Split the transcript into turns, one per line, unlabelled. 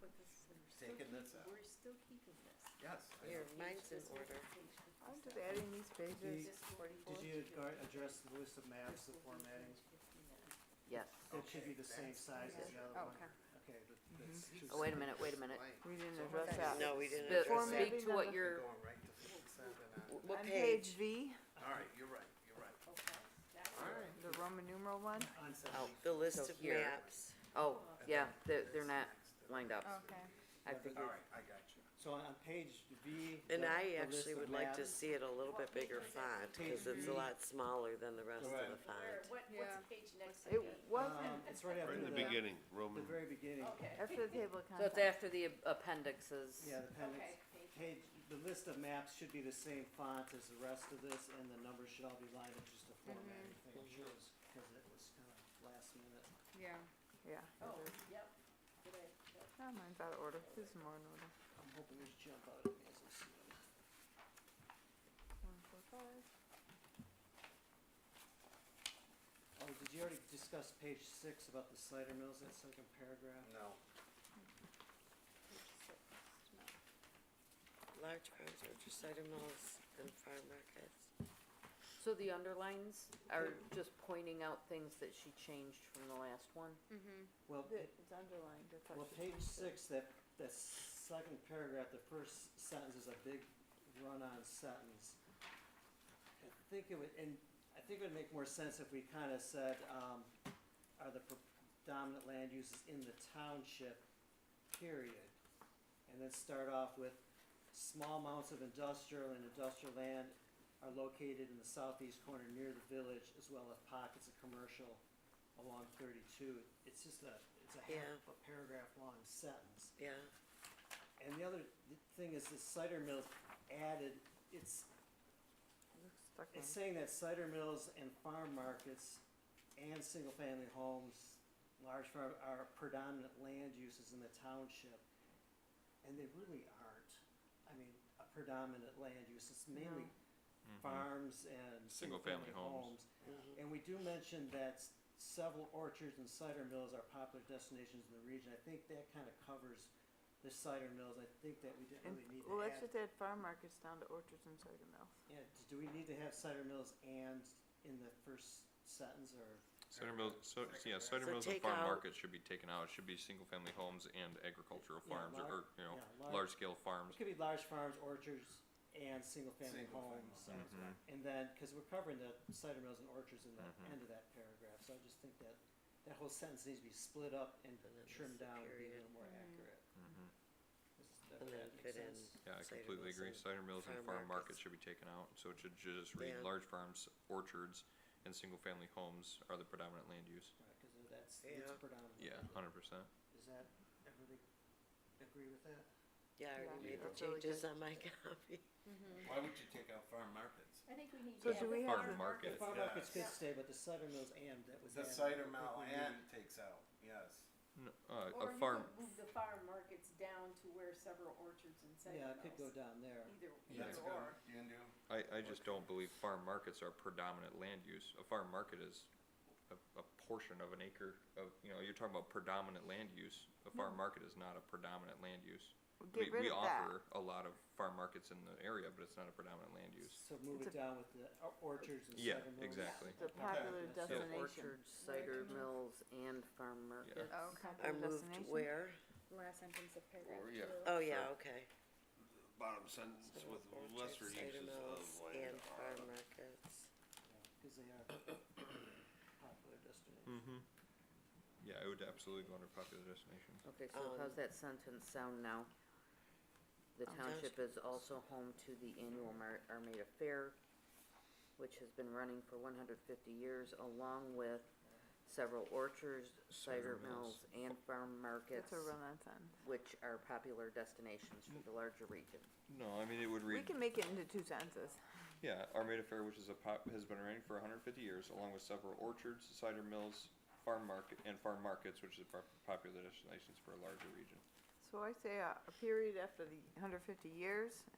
But this, we're still,
Taking this
keep-
out.
we're still keeping this.
Yes. I
Here,
know.
mine's in order.
I'm just adding these pages.
Just forty-four.
Did you gar- address the list of maps, the formatting?
Yes.
That should be
Okay,
the same
that's-
size as the other one.
Oh, Okay.
Okay, but that's two
Oh, wait a
separate-
minute, wait a minute.
Blank.
We didn't
So
address
I'm
that.
No, we didn't address
But
that.
formatting
Speak to what
number-
you're,
Going right to fix that and,
wh- what
On
page?
V,
uh, all right, you're right, you're right. Alright.
the Roman numeral one.
On seven.
Oh, the list
So
of
here.
maps. Oh, yeah, they're, they're not lined up.
Okay.
I
Yeah, but-
figured.
All right, I got you.
So on page V.
And
the-
I
the
actually
list of
would like to
maps.
see it a little bit bigger font, cause it's a lot smaller than the rest of
Right.
the font.
What, what's
Yeah.
page next to
It
me?
wasn't
Um, It's right after
Right in the
the,
beginning,
the
Roman,
very beginning.
Okay,
after the table of
So it's
contents.
after the appendixes.
Yeah, the appendix.
okay, page,
Page, the list of maps should be the same font as the rest of this, and the numbers should all be lined up, just the formatting thing shows, cause it was kinda last minute.
Yeah. Yeah.
oh, yep. Good, yep.
Oh, mine's out of order. This is more in order.
I'm hoping these jump out at me as I see them.
One, four, five.
Oh, did you already discuss page six about the cider mills, that second paragraph?
No,
Page six. No.
Large farms, orchards, cider mills, and farm markets.
So the underlines are just pointing out things that she changed from the last one?
Well,
It- It's underlined. That's
Well,
actually-
page six, that, that second paragraph, the first sentence is a big run-on sentence. I think it would, and I think it would make more sense if we kinda said, um, are the predominant land uses in the township, period. And then start off with, small amounts of industrial and industrial land are located in the southeast corner near the village, as well as pockets of commercial along thirty-two. It's just a, it's a half
Yeah.
a paragraph long sentence.
Yeah,
And the other th- thing is the cider mills added, it's,
Looks stuck in.
it's saying that cider mills and farm markets and single-family homes, large farm, are predominant land uses in the township. And they really aren't, I mean, a predominant land use, it's mainly farms and single-family
Single-family
homes.
homes.
Mm-hmm.
And we do mention that s- several orchards and cider mills are popular destinations in the region, I think that kinda covers the cider mills, I think that we didn't
And-
really need to
Well, let's
add.
just add farm markets down to orchards and cider mills.
Yeah, d- do we need to have cider mills and in the first sentence or?
cider mills, so, yeah, cider
So
mills and
take
farm
out-
markets should be taken out, it should be single-family homes and agricultural
Yeah,
farms, or,
lar-
or, you
yeah,
know,
lar-
large-scale farms.
It could be large farms, orchards, and single-family
Single-family
homes.
homes.
Mhm.
And then, cause we're covering the cider mills and orchards in the
Mhm.
end of that paragraph, so I just think that that whole sentence needs to be split up and
And then there's
trimmed
the
down to be a
period.
little more accurate.
Mhm.
Does that-
and then
that make
put in.
sense?
Yeah, I
cider
completely
mills
agree,
and-
cider mills and
farm
farm
markets.
markets should be taken out, so it should just read
Yeah.
large farms, orchards, and single-family homes are the predominant land use.
Right, cause that's,
Yeah.
that's predominant.
Yeah, hundred percent.
Does that, everybody agree with that?
Yeah, I already
Yeah.
made the
That's really
changes
good.
on my copy.
why would you take out farm markets?
I think we need
So
to.
do
add the
we have
farm
the- Farm
The
market.
farm
Yeah.
markets could
Yeah.
stay, but the cider mills and that was
The
added.
cider
I think
mill
we need-
and takes out, yes.
No, uh,
Or
a
you
farm,
could move the farm markets down to where several orchards and cider
Yeah,
mills.
it could go down there.
Either,
Yeah.
That's
either
good.
or.
You can do,
I, I just don't believe farm markets are predominant land use. A farm market is a, a portion of an acre of, you know, you're talking about predominant land use. A farm market is not a predominant land use.
Well,
We,
Get rid
we
of that.
offer a lot of farm markets in the area, but it's not a predominant land use.
So move
It's
it down with the o- orchards and
Yeah,
cider mills.
exactly.
The popular
Yeah.
So
destination.
orchards, cider mills, and farm markets.
Oh, okay.
I
Popular
moved
destination.
where?
Last sentence of paragraph
Or,
two.
yeah.
Oh, yeah, okay.
bottom sentence
So
with
orchards,
lesser
cider
uses of
mills,
land
And
are.
farm markets.
Cause they are popular destinations.
Mm-hmm. Yeah, it would absolutely go under popular destinations.
Okay, so how's
Um,
that sentence sound now? The
Um,
township is also home to the annual Mar- Armada Fair, which has been running for one hundred fifty years, along with several orchards, cider
Cider mills.
mills, and farm markets,
That's a run-on sentence.
which are popular destinations for the larger region.
No, I mean, it would
We
read,
can make it into two sentences.
yeah, Armada Fair, which is a pop, has been running for hundred and fifty years, along with several orchards, cider mills, farm market, and farm markets, which is pop- popular destinations for a larger region.
So I say a, a period after the hundred fifty years,